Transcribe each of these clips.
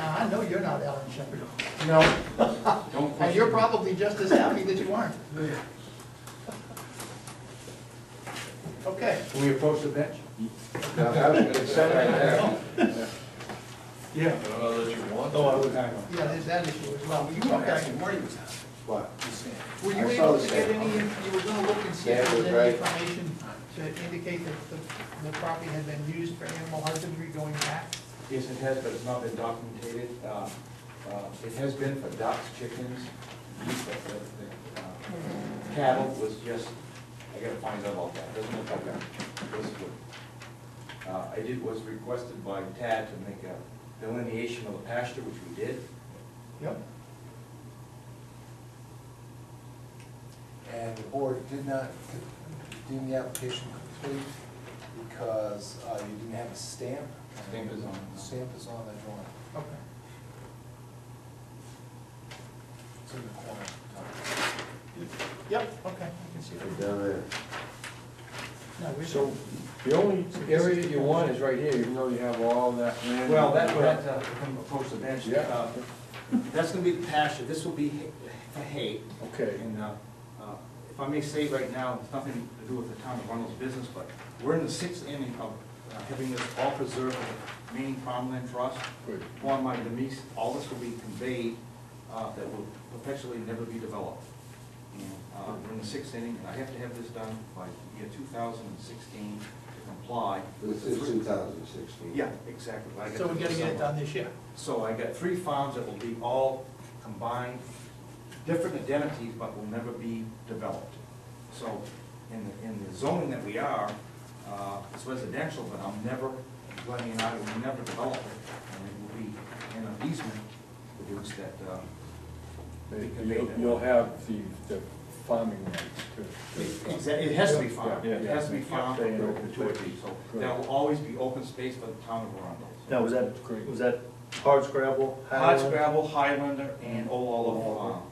I know you're not Alan Shepard, No, Don't and you're question me. probably just as happy that you aren't. Okay, can we approach the bench? Now, that was good stuff right there. Yeah. I don't know that you want Oh, I to. would, hang on. yeah, there's that issue as well. You were Actually, okay. Marty was out, What? he's saying. Were you I saw able the to get same. any, you were gonna look and see Yeah, if it there was was any right. information to indicate that the, the property had been used for animal husbandry going back? Yes, it has, but it's not been documented. Uh, uh, It has been for ducks, chickens, geese, but the- the, uh, cattle was just, I gotta find out about that, doesn't look like that. This is what- uh, I did, was requested by Tad to make a delineation of the pasture, which we did. Yep. And the board did not, deem the application complete because uh, you didn't have a stamp. Stamp is on it now. Stamp is on the drawing, Okay. it's in the corner. Yep, okay, I can see Right that. Down there. No, we- So the only area that you want is right here, even though you have all that land. Well, that, that, uh, if I'm approach the bench. Yeah. uh, That's gonna be the pasture, this will be ha- hay. Okay. And uh, uh, if I may say right now, it's nothing to do with the town of Arundel's business, but we're in the sixth inning of uh, having this all preserved for the remaining farmland trust. Good. Formed by Denise, all this will be conveyed, uh, that will perpetually never be developed. And uh, we're in the sixth inning, and I have to have this done by year two thousand and sixteen to comply. with This the is three- two thousand sixteen. Yeah, exactly. I So we gotta do get it somewhere. done this year. So I got three farms that will be all combined, different identities, but will never be developed. So in, the- in the zoning that we are, uh, it's residential, but I'm never, Lenny and I will never develop it. And it will be in an easement produced that, uh, we convey You'll, that. you'll have the, the farming rights It- too. it's- It has to be farmed, Yeah, it has to be yeah. farmed Stay for in open perpetuity, space. so Correct. there will always be open space for the town of Arundel. Now, was that, was that hard scrabble? Hodgescrabble, Highlander, and Old Oliver Farm.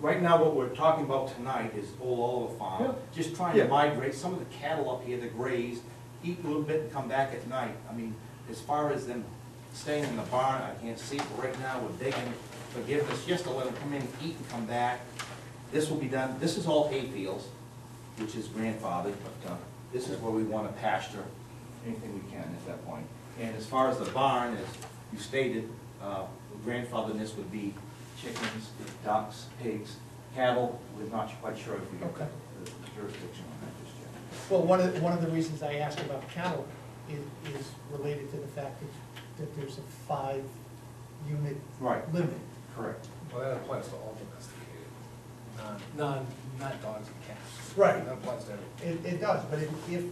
Right now, what we're talking about tonight is Old Oliver Farm, just trying to Yeah. migrate some of the cattle up here, the graze, eat a little bit and come back at night. I mean, as far as them staying in the barn, I can't see, but right now, we're begging forgiveness just to let them come in, eat and come back. This will be done, this is all hay fields, which is grandfathered, but uh, this is where we want to pasture anything we can at that point. And as far as the barn, as you stated, uh, grandfatherness would be chickens, ducks, pigs, cattle. We're not quite sure if we have Okay. the jurisdiction on that just yet. Well, one of, one of the reasons I asked about cattle is, is related to the fact that, that there's a five-unit Right. limit. Correct. Well, that applies to all domesticated, non, non, not dogs and cats. Right. That applies to everyone. It, it does, but if, if,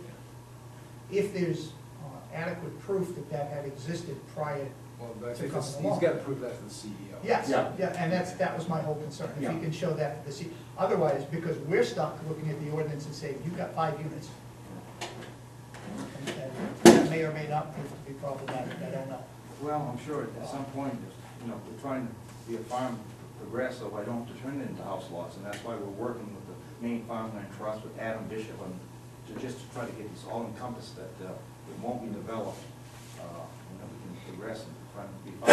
if there's uh, adequate proof that that had existed prior, Well, but I To think come this- he's along. got to prove that to the E CEO. yes, Yeah. yeah, and that's, that was my whole concern. If Yeah. you can show that to the C, otherwise, because we're stuck looking at the ordinance and saying, you've got five units. And- and That may or may not prove to be problematic, I don't know. Well, I'm sure at some point, you know, we're trying to be a farm progress, so I don't have to turn it into house lots. And that's why we're working with the Maine Farmland Trust, with Adam Bishop, and to just to try to get this all encompassed, that uh, it won't be developed. uh, And that we can progress and try to be. I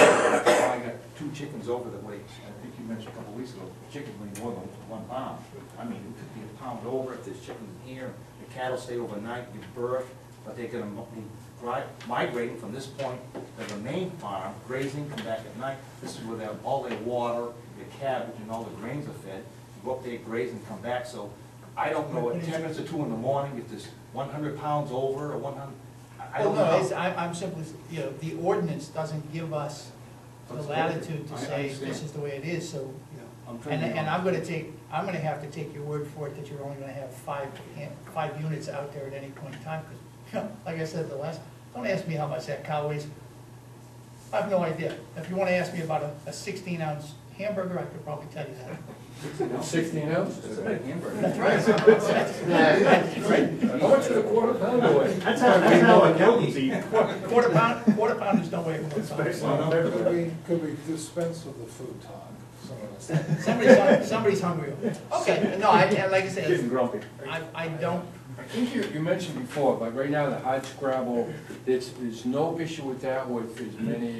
got two chickens over the way, I think you mentioned a couple weeks ago, chickens weigh more than one pound. I mean, it could be a pound over if there's chickens in here, the cattle stay overnight, give birth, but they're gonna mo- be dri- migrating from this point to the main farm, grazing, come back at night. This is where they have all their water, their cabbage, and all the grains are fed. Go up there, graze, and come back, so I don't know, at ten minutes or two in the morning, if there's one hundred pounds over or one hundred, I Well, don't Oh, know. no, it's, I'm, I'm simply, you know, the ordinance doesn't give us the That's latitude to correct. I say, understand. this is the way it is, so, you I'm know. trying And, to be and I'm honest. gonna take, I'm gonna have to take your word for it that you're only gonna have five, an- five units out there at any point in time, because, like I said the last, don't ask me how much that cow weighs. I have no idea. If you wanna ask me about a- a sixteen ounce hamburger, I could probably tell you that. Sixteen It's ounces? a big hamburger. That's right. How much is a quarter pound away? That's how, that's how accountants eat. Quarter pound, quarter pounders don't weigh more than five. Could we, could we dispense with the food talk? Some of us- Somebody's, hung- somebody's hungry. Okay, no, I, and like I Getting said, grumpy. I, I don't, I think you, you mentioned before, but right now, the hard scrabble, there's, there's no issue with that with as many